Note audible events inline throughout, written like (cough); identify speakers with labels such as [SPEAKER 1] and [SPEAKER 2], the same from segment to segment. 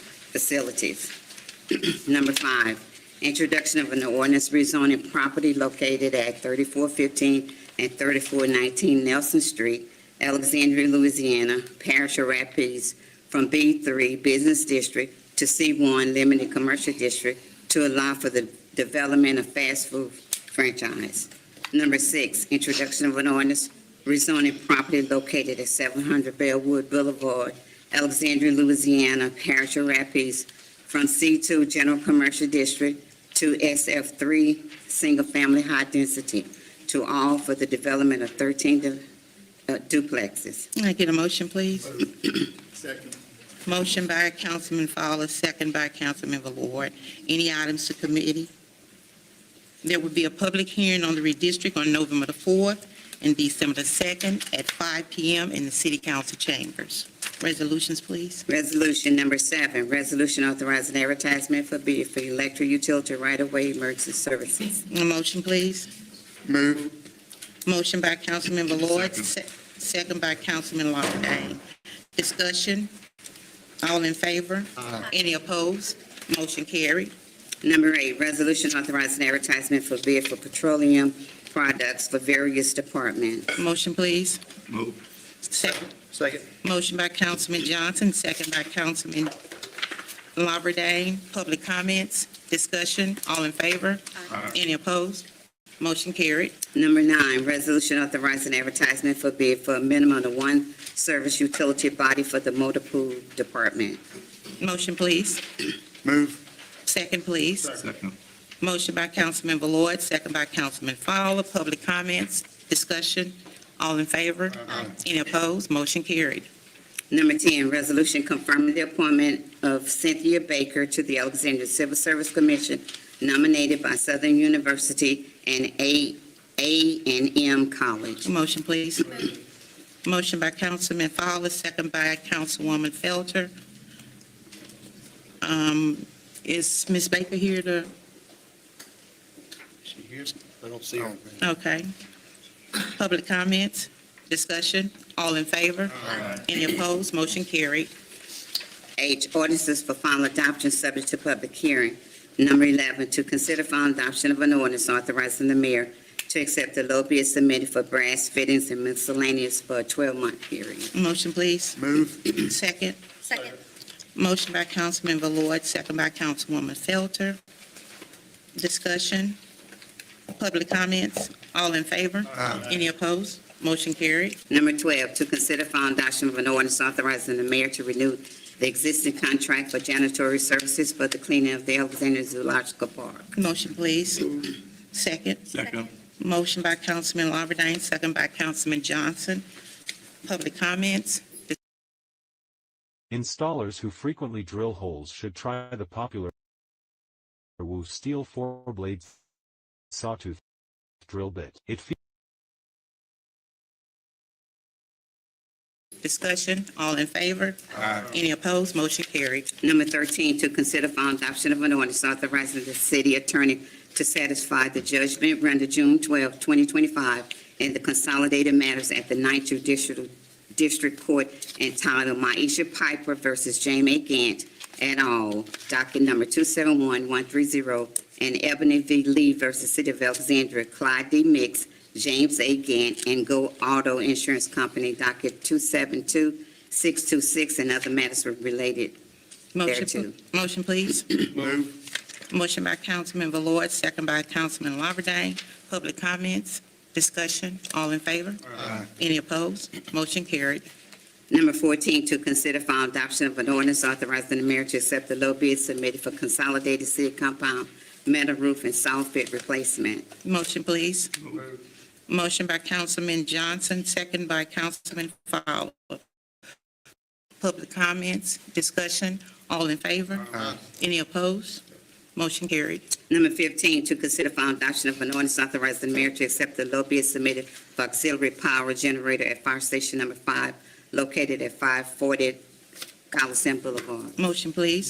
[SPEAKER 1] facilities. (clears throat) Number five, introduction of an ordinance rezoning property located at 3415 and 3419 Nelson Street, Alexandria, Louisiana, Parish of Rapides, from B3 Business District to C1 Limited Commercial District to allow for the development of fast food franchise. Number six, introduction of an ordinance rezoning property located at 700 Bellwood Boulevard, Alexandria, Louisiana, Parish of Rapides, from C2 General Commercial District to SF3 Single Family High Density, to all for the development of 13 du- uh, duplexes.
[SPEAKER 2] Can I get a motion, please?
[SPEAKER 3] Second.
[SPEAKER 2] Motion by Councilman Fowler, second by Councilman Ward. Any items to committee? There will be a public hearing on the redistrict on November the 4th and December the 2nd at 5 PM in the City Council chambers. Resolutions, please.
[SPEAKER 1] Resolution number seven, resolution authorizing advertisement for bid for electric utility right-of-way emergency services.
[SPEAKER 2] A motion, please.
[SPEAKER 3] Move.
[SPEAKER 2] Motion by Councilman Lloyd, se- second by Councilman Lawberdane. Discussion? All in favor? Any opposed? Motion carried.
[SPEAKER 1] Number eight, resolution authorizing advertisement for bid for petroleum products for various departments.
[SPEAKER 2] Motion, please.
[SPEAKER 3] Move.
[SPEAKER 2] Second.
[SPEAKER 3] Second.
[SPEAKER 2] Motion by Councilman Johnson, second by Councilman Lawberdane. Public comments? Discussion? All in favor? Any opposed? Motion carried.
[SPEAKER 1] Number nine, resolution authorizing advertisement for bid for a minimum of one service utility body for the motor pool department.
[SPEAKER 2] Motion, please.
[SPEAKER 3] Move.
[SPEAKER 2] Second, please.
[SPEAKER 3] Second.
[SPEAKER 2] Motion by Councilman Ballard, second by Councilman Fowler. Public comments, discussion, all in favor? Any opposed? Motion carried.
[SPEAKER 1] Number 10, resolution confirming the appointment of Cynthia Baker to the Alexandria Civil Service Commission nominated by Southern University and A, A and M College.
[SPEAKER 2] Motion, please. Motion by Councilman Fowler, second by Councilwoman Felter. Um, Is Ms. Baker here to,
[SPEAKER 3] She hears? I don't see her.
[SPEAKER 2] okay. Public comments, discussion, all in favor? Any opposed? Motion carried.
[SPEAKER 1] H, ordinances for final adoption subject to public hearing. Number 11, to consider final adoption of an ordinance authorizing the mayor to accept the low bid submitted for brass fittings and miscellaneous for a 12-month period.
[SPEAKER 2] Motion, please.
[SPEAKER 3] Move.
[SPEAKER 2] Second.
[SPEAKER 4] Second.
[SPEAKER 2] Motion by Councilman Ballard, second by Councilwoman Felter. Discussion, public comments, all in favor? Any opposed? Motion carried.
[SPEAKER 1] Number 12, to consider final adoption of an ordinance authorizing the mayor to renew the existing contract for janitorial services for the cleaning of the Alexandria Zoological Park.
[SPEAKER 2] Motion, please. Second.
[SPEAKER 3] Second.
[SPEAKER 2] Motion by Councilman Lawberdane, second by Councilman Johnson. Public comments,
[SPEAKER 5] Installers who frequently drill holes should try the popular Wu steel four-blade sawtooth drill bit. It features
[SPEAKER 2] discussion, all in favor? Any opposed? Motion carried.
[SPEAKER 1] Number 13, to consider final adoption of an ordinance authorizing the city attorney to satisfy the judgment rendered June 12, 2025, in the consolidated matters at the Ninth Judicial District Court entitled Maisha Piper versus Jamie Gant et al., docket number 271130, and Ebony V. Lee versus City of Alexandria, Clyde D. Mix, James A. Gant, and Go Auto Insurance Company, docket 272626, and other matters related
[SPEAKER 2] Motion,
[SPEAKER 1] too.
[SPEAKER 2] pl- Motion, please.
[SPEAKER 3] Move.
[SPEAKER 2] Motion by Councilman Ballard, second by Councilman Lawberdane. Public comments, discussion, all in favor? Any opposed? Motion carried.
[SPEAKER 1] Number 14, to consider final adoption of an ordinance authorizing the mayor to accept the low bid submitted for consolidated city compound metal roof and soffit replacement.
[SPEAKER 2] Motion, please. Motion by Councilman Johnson, second by Councilman Fowler. Public comments, discussion, all in favor? Any opposed? Motion carried.
[SPEAKER 1] Number 15, to consider final adoption of an ordinance authorizing the mayor to accept the low bid submitted for auxiliary power generator at fire station number five located at 540 Coliseum Boulevard.
[SPEAKER 2] Motion, please.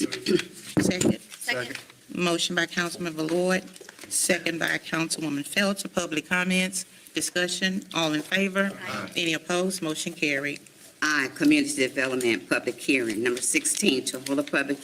[SPEAKER 2] Second.
[SPEAKER 4] Second.
[SPEAKER 2] Motion by Councilman Ballard, second by Councilwoman Felter. Public comments, discussion, all in favor? Any opposed? Motion carried.
[SPEAKER 1] I, Community Development Public Hearing. Number 16, to hold a public